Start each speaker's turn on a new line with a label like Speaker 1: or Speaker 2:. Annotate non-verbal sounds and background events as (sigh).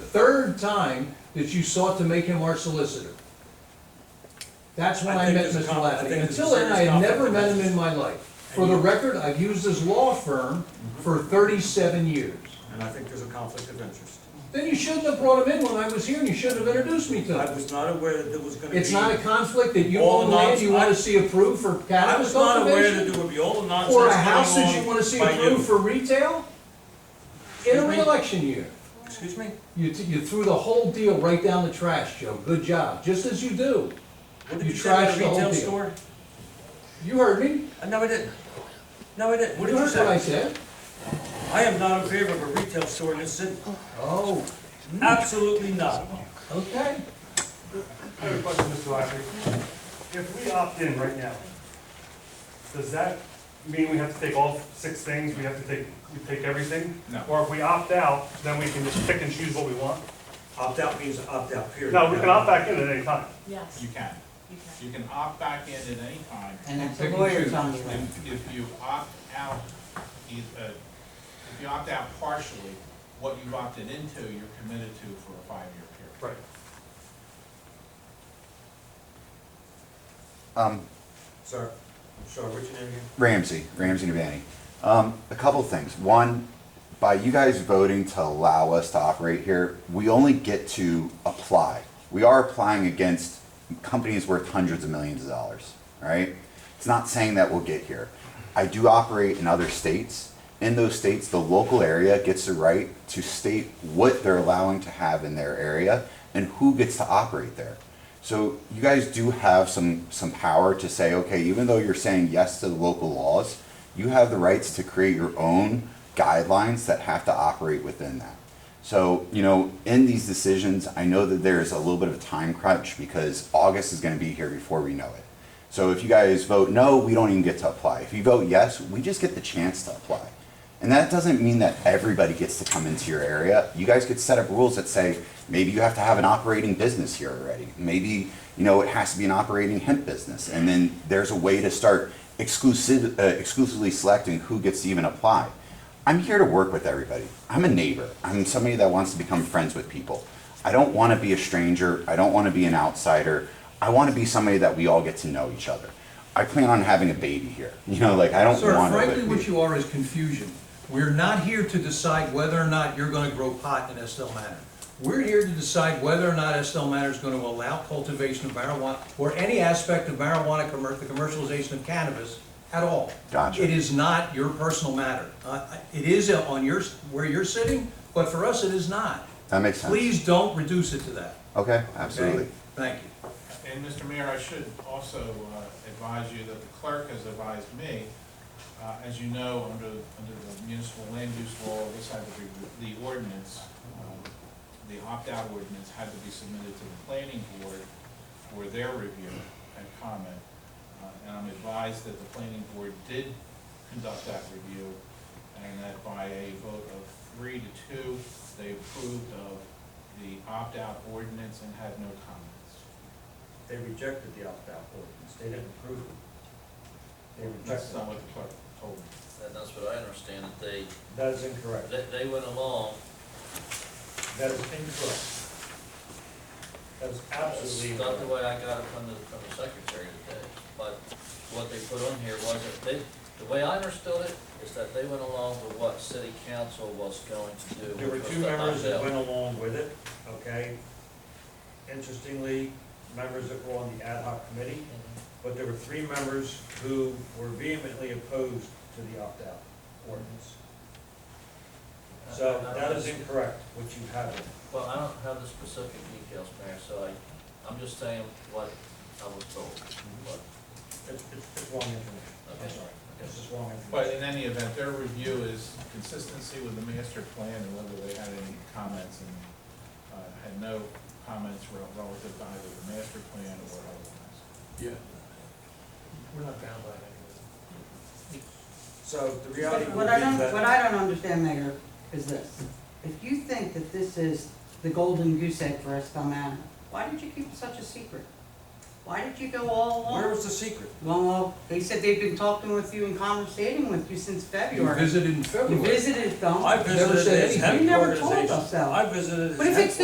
Speaker 1: third time that you sought to make him our solicitor. That's when
Speaker 2: I
Speaker 1: I
Speaker 2: think
Speaker 1: met
Speaker 2: there's a
Speaker 1: Mr.
Speaker 2: con- I
Speaker 1: Lafferty.
Speaker 2: think there's a
Speaker 1: Until then, I
Speaker 2: serious
Speaker 1: had never
Speaker 2: conflict
Speaker 1: met
Speaker 2: of
Speaker 1: him in my life. For the
Speaker 2: And you- Mm-hmm.
Speaker 1: record, I've used his law firm for thirty-seven years.
Speaker 2: And I think there's a conflict of interest.
Speaker 1: Then you shouldn't have brought him in when I was here, and you shouldn't have introduced me to
Speaker 2: I
Speaker 1: him.
Speaker 2: was not aware that there was gonna be.
Speaker 1: It's not a conflict that you
Speaker 2: All
Speaker 1: own land
Speaker 2: nonsense-
Speaker 1: you wanna see approved for
Speaker 2: I
Speaker 1: cannabis
Speaker 2: was not aware that
Speaker 1: cultivation?
Speaker 2: there would be all the nonsense
Speaker 1: Or
Speaker 2: going
Speaker 1: a
Speaker 2: on
Speaker 1: house that you wanna see
Speaker 2: by you.
Speaker 1: approved for retail? In a
Speaker 2: Excuse me?
Speaker 1: reelection year.
Speaker 2: Excuse me?
Speaker 1: You, t- you threw the whole deal right down the trash, Joe. Good job, just as you do.
Speaker 2: What did
Speaker 1: You
Speaker 2: you say about
Speaker 1: trashed
Speaker 2: a
Speaker 1: the whole
Speaker 2: retail
Speaker 1: deal.
Speaker 2: store?
Speaker 1: You heard me?
Speaker 2: Uh, No, I didn't. No, I didn't. What
Speaker 1: You
Speaker 2: did you
Speaker 1: heard what I
Speaker 2: say?
Speaker 1: said?
Speaker 2: I am not in favor of a retail store in this city.
Speaker 1: Oh,
Speaker 2: Absolutely not.
Speaker 1: okay.
Speaker 3: I have a question, Mr. Lafferty. If we opt in right now, does that mean we have to take all six things, we have to take, we take everything?
Speaker 2: No.
Speaker 3: Or if we opt out, then we can just pick and choose what we want?
Speaker 2: Opt out means opt out, period.
Speaker 3: No, we can opt back in at any time.
Speaker 4: Yes,
Speaker 5: You can.
Speaker 4: you can.
Speaker 5: You can opt back in at any time.
Speaker 6: And that's
Speaker 1: Pick and
Speaker 6: a
Speaker 1: choose.
Speaker 6: lawyer's on you.
Speaker 5: And if you opt out, eith- uh, if you opt out partially, what you've opted into, you're committed to for a five-year period.
Speaker 3: Right.
Speaker 7: Um,
Speaker 2: Sir, I'm sorry, what's your name again?
Speaker 7: Ramsey, Ramsey Navani. Um, a couple things. One, by you guys voting to allow us to operate here, we only get to apply. We are applying against companies worth hundreds of millions of dollars, all right? It's not saying that we'll get here. I do operate in other states. In those states, the local area gets the right to state what they're allowing to have in their area and who gets to operate there. So you guys do have some, some power to say, okay, even though you're saying yes to the local laws, you have the rights to create your own guidelines that have to operate within that. So, you know, in these decisions, I know that there's a little bit of a time crunch because August is gonna be here before we know it. So if you guys vote no, we don't even get to apply. If you vote yes, we just get the chance to apply. And that doesn't mean that everybody gets to come into your area. You guys could set up rules that say, maybe you have to have an operating business here already. Maybe, you know, it has to be an operating hemp business. And then there's a way to start exclusive, uh, exclusively selecting who gets to even apply. I'm here to work with everybody. I'm a neighbor. I'm somebody that wants to become friends with people. I don't want to be a stranger. I don't want to be an outsider. I want to be somebody that we all get to know each other. I plan on having a baby here. (laughs) You know, like I don't
Speaker 1: Sir,
Speaker 7: want to.
Speaker 1: frankly, what you are is confusion. We're not here to decide whether or not you're gonna grow pot in Estelle Manor. We're here to decide whether or not Estelle Manor is gonna allow cultivation of marijuana or any aspect of marijuana, commer- the commercialization of cannabis at all.
Speaker 7: Gotcha.
Speaker 1: It is not your personal matter. Uh, It is on your, where you're sitting, but for us, it is not.
Speaker 7: That makes sense.
Speaker 1: Please don't reduce it to that.
Speaker 7: Okay,
Speaker 1: okay?
Speaker 7: absolutely.
Speaker 1: Thank you.
Speaker 5: And Mr. Mayor, I should also uh, advise you that the clerk has advised me, uh, as you know, under, under the municipal land use law, this had to be, the ordinance, um, the opt-out ordinance had to be submitted to the planning board for their review and comment. Uh, And I'm advised that the planning board did conduct that review, and that by a vote of three to two, they approved of the opt-out ordinance and had no comments.
Speaker 2: They rejected the opt out ordinance. They didn't approve it. They
Speaker 5: That's
Speaker 2: rejected
Speaker 5: not what
Speaker 2: it.
Speaker 5: the clerk told me.
Speaker 8: And that's what I understand, that they,
Speaker 2: That is incorrect.
Speaker 8: that they went along.
Speaker 2: That is incorrect. That is
Speaker 8: It's
Speaker 2: absolutely
Speaker 8: not the
Speaker 2: incorrect.
Speaker 8: way I got it from the, from the secretary today, but what they put on here was that they, the way I understood it is that they went along with what city council was going to do.
Speaker 2: There were
Speaker 8: which was
Speaker 2: two
Speaker 8: to
Speaker 2: members that
Speaker 8: opt out.
Speaker 2: went along with it, okay? Interestingly, members that were on the ad hoc committee,
Speaker 8: Mm-hmm.
Speaker 2: but there were three members who were vehemently opposed to the opt out ordinance. So
Speaker 8: I- I
Speaker 2: that
Speaker 8: don't-
Speaker 2: is incorrect, what you have. there.
Speaker 8: Well, I don't have the specific details, Mayor, so I, I'm just saying what I was told, but,
Speaker 2: It's, it's it's wrong information. I'm
Speaker 8: Okay.
Speaker 2: sorry. This is wrong information.
Speaker 5: But in any event, their review is consistency with the master plan and whether they had any comments and uh, had no comments rel- relative to either the master plan or otherwise.
Speaker 1: We're not bound by anything.
Speaker 2: So the reality would be
Speaker 6: What I don't, what
Speaker 2: that,
Speaker 6: I don't understand, Mayor, is this. If you think that this is the golden goose egg for Estelle Manor, why did you keep such a secret? Why did you go all
Speaker 2: where
Speaker 6: along?
Speaker 2: was the secret?
Speaker 6: Well, well, they said they've been talking with you and conversating with you since
Speaker 1: You
Speaker 6: February.
Speaker 1: visited in
Speaker 6: You
Speaker 1: February.
Speaker 6: visited them.
Speaker 2: I
Speaker 1: Never said
Speaker 2: visited his
Speaker 1: anything.
Speaker 2: hemp
Speaker 6: You never told
Speaker 2: organization.
Speaker 6: us that.
Speaker 2: I visited his
Speaker 6: But if
Speaker 2: hemp
Speaker 6: it's